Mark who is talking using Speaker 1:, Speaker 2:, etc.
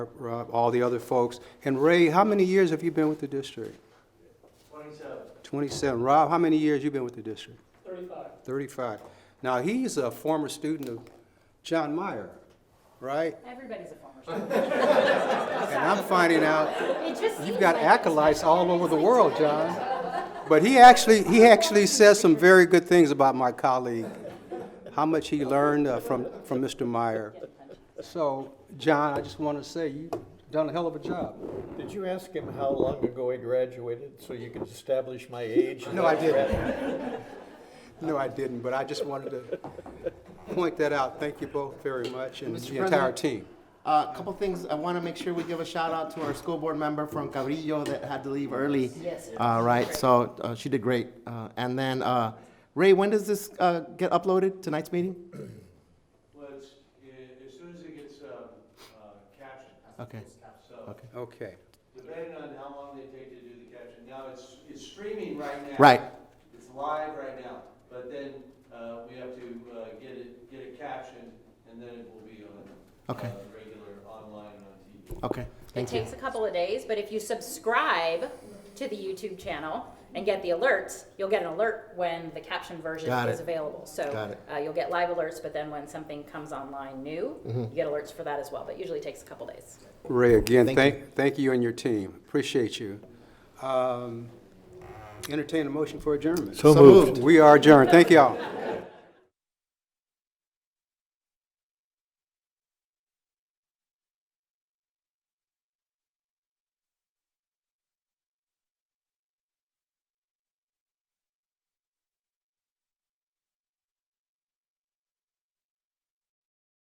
Speaker 1: Rob, all the other folks. And Ray, how many years have you been with the district? Twenty-seven. Twenty-seven. Rob, how many years you been with the district? Thirty-five. Thirty-five. Now, he's a former student of John Meyer, right?
Speaker 2: Everybody's a former student.
Speaker 1: And I'm finding out
Speaker 2: It just seems
Speaker 1: You've got
Speaker 2: like-
Speaker 1: acolytes all over the world, John. But he actually, he actually says some very good things about my colleague, how much he learned uh, from, from Mr. Meyer. So, John, I just want to say, you've done a hell of a job.
Speaker 3: Did you ask him how long ago he graduated so you could establish my age?
Speaker 1: No, I didn't. No, I didn't, but I just wanted to point that out. Thank you both very much and
Speaker 4: Mr.
Speaker 1: the entire
Speaker 4: President?
Speaker 1: team.
Speaker 4: A Uh, couple things, I want to make sure we give a shout out to our school board member from Cabrillo that had to leave early.
Speaker 2: Yes.
Speaker 4: Uh, right, so, uh, she did great. Uh, and then, uh, Ray, when does this, uh, get uploaded, tonight's meeting?
Speaker 5: Well, it's, i- as soon as it gets um, uh, captioned.
Speaker 4: Okay.
Speaker 5: So
Speaker 4: Okay.
Speaker 1: Okay.
Speaker 5: depending on how long they take to do the caption. Now, it's, it's streaming right now.
Speaker 4: Right.
Speaker 5: It's live right now, but then uh, we have to uh, get it, get it captioned, and then it will be on
Speaker 4: Okay.
Speaker 5: uh, regular online and on TV.
Speaker 4: Okay,
Speaker 2: It
Speaker 4: thank you.
Speaker 2: takes a couple of days, but if you subscribe to the YouTube channel and get the alerts, you'll get an alert when the captioned version
Speaker 4: Got
Speaker 2: is
Speaker 4: it.
Speaker 2: available. So
Speaker 4: Got it.
Speaker 2: uh, you'll get live alerts, but then when something comes online new,
Speaker 1: Mm-hmm.
Speaker 2: you get alerts for that as well. But usually takes a couple of days.
Speaker 1: Ray, again,
Speaker 4: Thank
Speaker 1: thank, thank you and your team. Appreciate you. Um, Entertain a motion for adjournment.
Speaker 4: So moved.
Speaker 1: We are adjourned. Thank y'all.